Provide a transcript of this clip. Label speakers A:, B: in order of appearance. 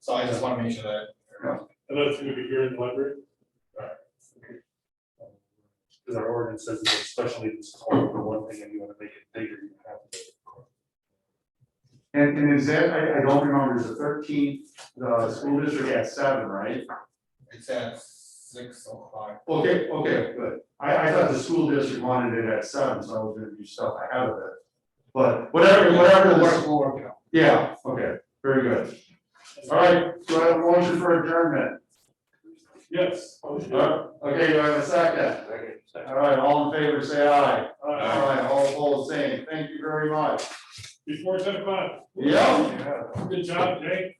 A: so I just wanna make sure that.
B: And that's gonna be here in the library? Because our ordinance says that especially if it's called for one thing and you wanna make it bigger, you have to.
C: And, and is that, I, I don't remember, is the thirteenth, the school district at seven, right?
A: It's at six o'clock,
C: Okay, okay, good. I, I thought the school district wanted it at seven, so I was gonna do stuff ahead of it. But whatever, whatever, the-
A: We'll work it out.
C: yeah, okay, very good. All right, do I have a motion for adjournment?
B: Yes.
C: Uh, Okay, do I have a second? All right, all in favor, say aye. All right, all opposed, same. Thank you very much.
B: Before ten o'clock.
C: Yeah.
B: Good job, Jake.